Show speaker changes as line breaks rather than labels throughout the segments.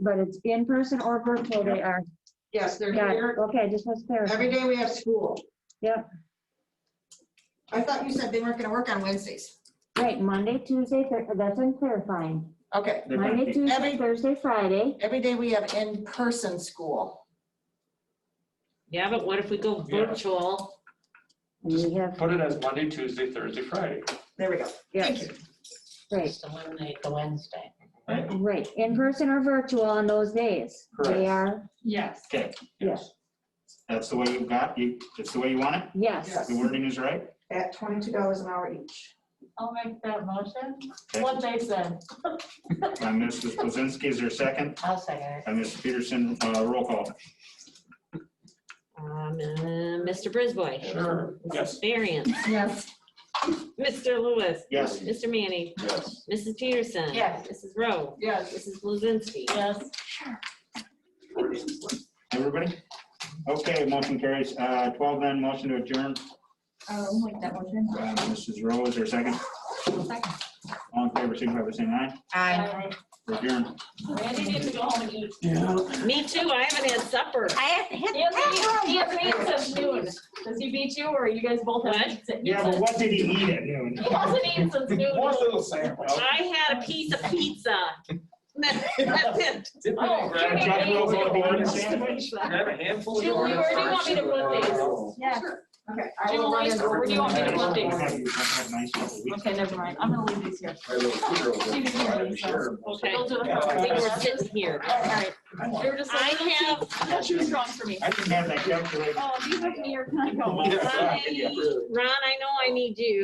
but it's in person or virtual they are.
Yes, they're
Got it.
here.
Okay, just was clear.
Every day we have school.
Yep.
I thought you said they weren't going to work on Wednesdays.
Right, Monday, Tuesday, Thur- that's in clarifying.
Okay,
They're gonna
Monday,
be-
Tuesday,
Every-
Thursday, Friday.
every day we have in-person school.
Yeah, but what if we go
Yeah.
virtual?
And we have,
Put it as Monday, Tuesday, Thursday, Friday.
There we go. Thank
yes,
you.
right,
Just eliminate the Wednesday.
right, in person or virtual on those days. They
Correct.
are,
Yes.
Okay.
Yes.
That's the way you've got, you, that's the way you want it?
yes.
Yes.
The wording is right?
At twenty-two dollars an hour each.
I'll make that motion.
Okay.
What they said.
By Mrs. Blazinski, Uh, is there a second?
I'll second
By Mrs. Peterson, uh, roll call.
Um, uh, Mr. Brisboy.
Sure, yes.
Mrs. Varian.
Yes.
Mr. Lewis.
Yes.
Mr. Manning.
Yes.
Mrs. Peterson.
Yes.
Mrs. Rowe.
Yes.
Mrs. Blazinski.
Yes.
Everybody? Okay, motion carries. Uh, Twelve then, motion to adjourn.
I'll make that motion.
Uh, Mrs. Rowe, is there a second? All in favor, signify by saying aye. Adjourn.
Randy needs to go home and eat.
Me too, I haven't had supper.
He hasn't eaten- he hasn't eaten since noon. Does he beat you or you guys both have?
What?
eaten?
Yeah, but what did he eat at noon?
He hasn't eaten since noon.
One little sandwich.
Oh.
I had a piece of pizza. That's it.
Dip it
Oh,
in, grab a
Chuck
chocolate
Roll's on the board and
sandwich.
sandwich?
Grab a handful of
Jim,
orange
where do you want
first
me to
and,
put these?
uh,
Yes.
Okay. I
Jim,
will
where
let
do you- where do you want me to put these? Okay,
Okay,
never mind. I'm gonna leave these here.
My little two-year-old was
She didn't hear
provided
me,
the
so-
share.
Okay.
They'll do
We
it.
were sitting here. All right.
They were just like,
I
"That's too strong for me.
I didn't have that calculated.
Oh, these are me or can I go?
Ron, I know I need you.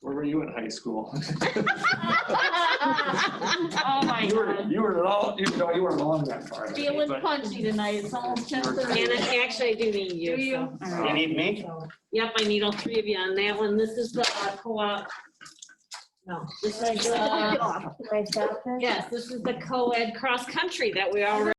Where were you in high school?
Oh, my
You were,
God.
you were all, you know, you weren't along that far. I think,
Feeling
but-
punchy tonight. It's almost ten thirty.
And I- actually, I do need you.
Do you?
so, all
um,
right.
You need me?
Yep, I need all three of you on that one. This is the uh, co-op. No, this is,
Should I
uh,
stop this?
yes, this is the co-ed cross-country that we already